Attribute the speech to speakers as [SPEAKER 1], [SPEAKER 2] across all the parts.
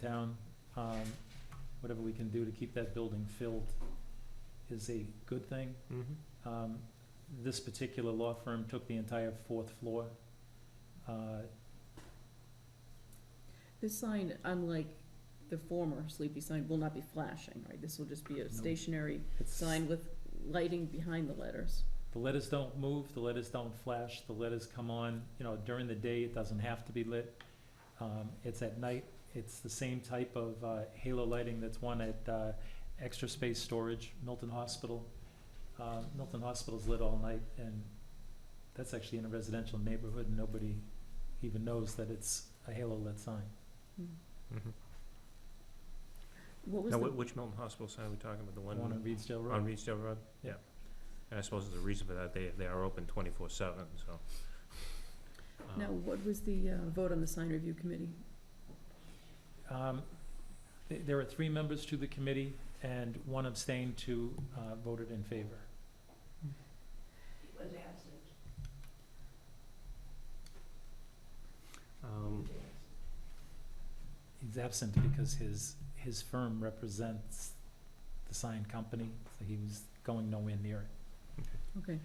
[SPEAKER 1] down, um, whatever we can do to keep that building filled is a good thing. Um, This particular law firm took the entire fourth floor. Uh,
[SPEAKER 2] This sign, unlike the former sleepy sign, will not be flashing, right? This will just be
[SPEAKER 1] No.
[SPEAKER 2] a stationary
[SPEAKER 1] it's-
[SPEAKER 2] sign with lighting behind the letters.
[SPEAKER 1] The letters don't move, the letters don't flash, the letters come on, you know, during the day, it doesn't have to be lit. Um, It's at night, it's the same type of uh, halo lighting that's one at uh, Extra Space Storage, Milton Hospital. Uh, Milton Hospital's lit all night, and that's actually in a residential neighborhood, and nobody even knows that it's a halo-lit sign.
[SPEAKER 2] Hmm. What was
[SPEAKER 3] Now,
[SPEAKER 2] the,
[SPEAKER 3] wh- which Milton Hospital sign are we talking about? The
[SPEAKER 1] One on
[SPEAKER 3] one
[SPEAKER 1] Reedsdale
[SPEAKER 3] on
[SPEAKER 1] Road.
[SPEAKER 3] Reedsdale Road? Yeah. And I suppose there's a reason for that. They, they are open twenty-four seven, so. um,
[SPEAKER 2] now, what was the uh, vote on the sign review committee?
[SPEAKER 1] Um, th- There are three members to the committee, and one abstained, two uh, voted in favor.
[SPEAKER 3] um,
[SPEAKER 1] He's absent because his, his firm represents the sign company, so he was going nowhere near it.
[SPEAKER 2] Okay,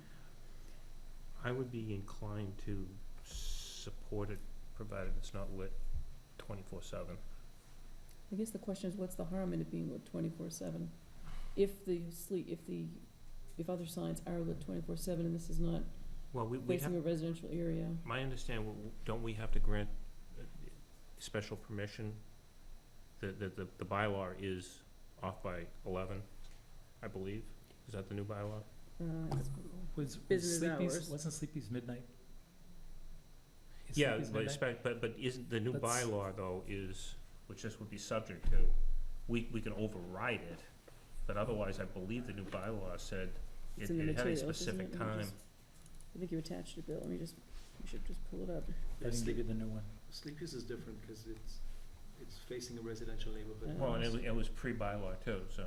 [SPEAKER 3] I would be inclined to support it, provided it's not lit twenty-four seven.
[SPEAKER 2] I guess the question is, what's the harm in it being lit twenty-four seven? If the sleep, if the, if other signs are lit twenty-four seven and this is not
[SPEAKER 3] Well, we, we have,
[SPEAKER 2] facing a residential area,
[SPEAKER 3] my understanding, w- don't we have to grant uh, special permission? The, the, the- the bylaw is off by eleven, I believe. Is that the new bylaw?
[SPEAKER 2] uh, it's-
[SPEAKER 1] Was, was
[SPEAKER 2] Business
[SPEAKER 1] Sleepy's,
[SPEAKER 2] hours.
[SPEAKER 1] wasn't Sleepy's midnight? Is
[SPEAKER 3] Yeah,
[SPEAKER 1] Sleepy's
[SPEAKER 3] but
[SPEAKER 1] midnight?
[SPEAKER 3] expect, but, but isn't, the new
[SPEAKER 1] That's-
[SPEAKER 3] bylaw though is, which this would be subject to, we, we can override it, but otherwise, I believe the new bylaw said it
[SPEAKER 2] it's in the
[SPEAKER 3] it had a
[SPEAKER 2] materials, isn't it?
[SPEAKER 3] specific
[SPEAKER 2] Let me
[SPEAKER 3] time.
[SPEAKER 2] just- I think you attached it, Bill, let me just, we should just pull it up.
[SPEAKER 1] I didn't give you the new one.
[SPEAKER 4] Sleepy's is different because it's, it's facing a residential neighborhood,
[SPEAKER 2] Yeah.
[SPEAKER 3] Well, and it was, it was pre-bylaw too, so,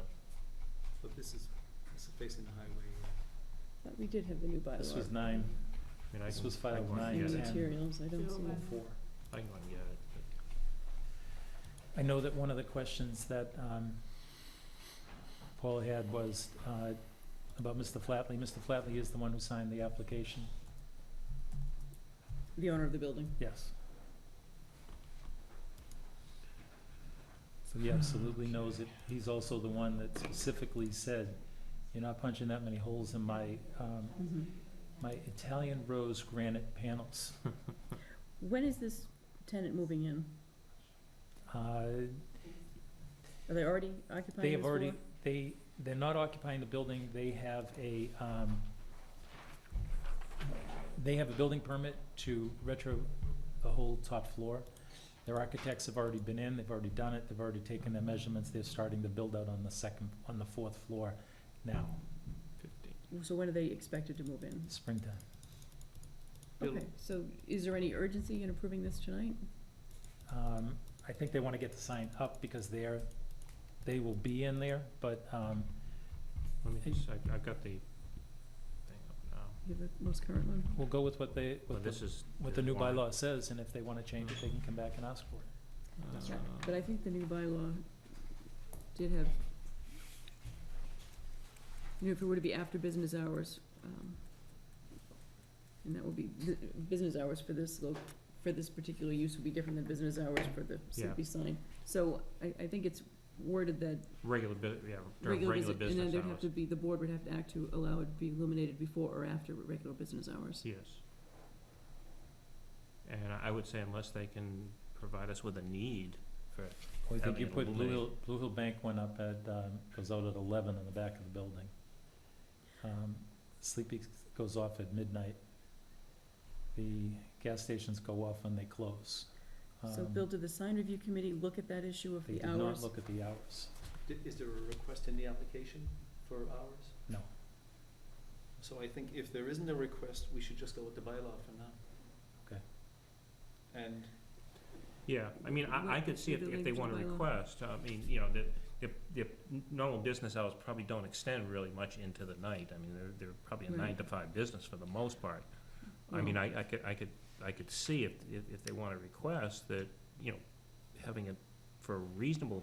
[SPEAKER 4] but this is, it's facing the highway.
[SPEAKER 2] But we did have the new bylaw.
[SPEAKER 1] This was nine,
[SPEAKER 3] I mean, I
[SPEAKER 1] This
[SPEAKER 3] can,
[SPEAKER 1] was
[SPEAKER 3] I
[SPEAKER 1] filed
[SPEAKER 3] can go and
[SPEAKER 1] nine,
[SPEAKER 2] In
[SPEAKER 3] get
[SPEAKER 2] the
[SPEAKER 3] it.
[SPEAKER 1] ten.
[SPEAKER 2] materials, I don't see
[SPEAKER 4] Oh,
[SPEAKER 2] it.
[SPEAKER 4] four.
[SPEAKER 3] I can go and get it, but-
[SPEAKER 1] I know that one of the questions that um, Paul had was uh, about Mr. Flatley. Mr. Flatley is the one who signed the application.
[SPEAKER 2] The owner of the building.
[SPEAKER 1] Yes. So he absolutely knows it. He's also the one that specifically said, you're not punching that many holes in my, um,
[SPEAKER 2] Mm-hmm.
[SPEAKER 1] my Italian rose granite panels.
[SPEAKER 2] When is this tenant moving in?
[SPEAKER 1] Uh,
[SPEAKER 2] Are they already occupying this
[SPEAKER 1] They have
[SPEAKER 2] floor?
[SPEAKER 1] already, they, they're not occupying the building, they have a, um, they have a building permit to retro the whole top floor. Their architects have already been in, they've already done it, they've already taken their measurements, they're starting to build out on the second, on the fourth floor now,
[SPEAKER 2] So when are they expected to move in?
[SPEAKER 1] springtime.
[SPEAKER 4] Bill-
[SPEAKER 2] Okay, so is there any urgency in approving this tonight?
[SPEAKER 1] Um, I think they wanna get the sign up because they're, they will be in there, but, um,
[SPEAKER 3] Let me
[SPEAKER 1] Hey.
[SPEAKER 3] just, I, I've got the thing up now.
[SPEAKER 2] You have the most current one?
[SPEAKER 1] we'll go with what they,
[SPEAKER 3] Well,
[SPEAKER 1] with
[SPEAKER 3] this
[SPEAKER 1] the,
[SPEAKER 3] is.
[SPEAKER 1] what the new
[SPEAKER 3] warrant.
[SPEAKER 1] bylaw says, and if they wanna change it, they can come back and ask for it.
[SPEAKER 2] That's
[SPEAKER 3] Uh,
[SPEAKER 2] right. But I think the new bylaw did have, you know, if it were to be after business hours, um, and that would be, the, business hours for this lo- for this particular use would be different than business hours for the
[SPEAKER 3] Yeah.
[SPEAKER 2] sleepy sign. So I, I think it's worded that
[SPEAKER 3] Regular bu- yeah, during
[SPEAKER 2] regular
[SPEAKER 3] regular
[SPEAKER 2] business, and then
[SPEAKER 3] business
[SPEAKER 2] there'd have
[SPEAKER 3] hours,
[SPEAKER 2] to be, the board would have to act to allow it to be illuminated before or after regular business hours.
[SPEAKER 3] yes. And I I would say unless they can provide us with a need for
[SPEAKER 1] Well, I think you
[SPEAKER 3] having it
[SPEAKER 1] put Blue Hill,
[SPEAKER 3] illuminated.
[SPEAKER 1] Blue Hill Bank went up at, um, goes out at eleven in the back of the building. Um, Sleepy goes off at midnight. The gas stations go off when they close.
[SPEAKER 2] So
[SPEAKER 1] Um,
[SPEAKER 2] Bill, did the sign review committee look at that issue of
[SPEAKER 1] They
[SPEAKER 2] the
[SPEAKER 1] did not
[SPEAKER 2] hours?
[SPEAKER 1] look at the hours.
[SPEAKER 4] Did, is there a request in the application for hours?
[SPEAKER 1] No.
[SPEAKER 4] So I think if there isn't a request, we should just go with the bylaw for now.
[SPEAKER 1] Okay.
[SPEAKER 4] And
[SPEAKER 3] Yeah, I mean, I, I could see if,
[SPEAKER 2] Leave it
[SPEAKER 3] if they
[SPEAKER 2] linked to
[SPEAKER 3] wanna
[SPEAKER 2] the bylaw.
[SPEAKER 3] request, I mean, you know, the, the, the normal business hours probably don't extend really much into the night. I mean, they're, they're probably a
[SPEAKER 2] Right.
[SPEAKER 3] nine to five business for the most part. I mean, I, I could, I could, I could see if, if, if they wanna request that, you know, having it for a reasonable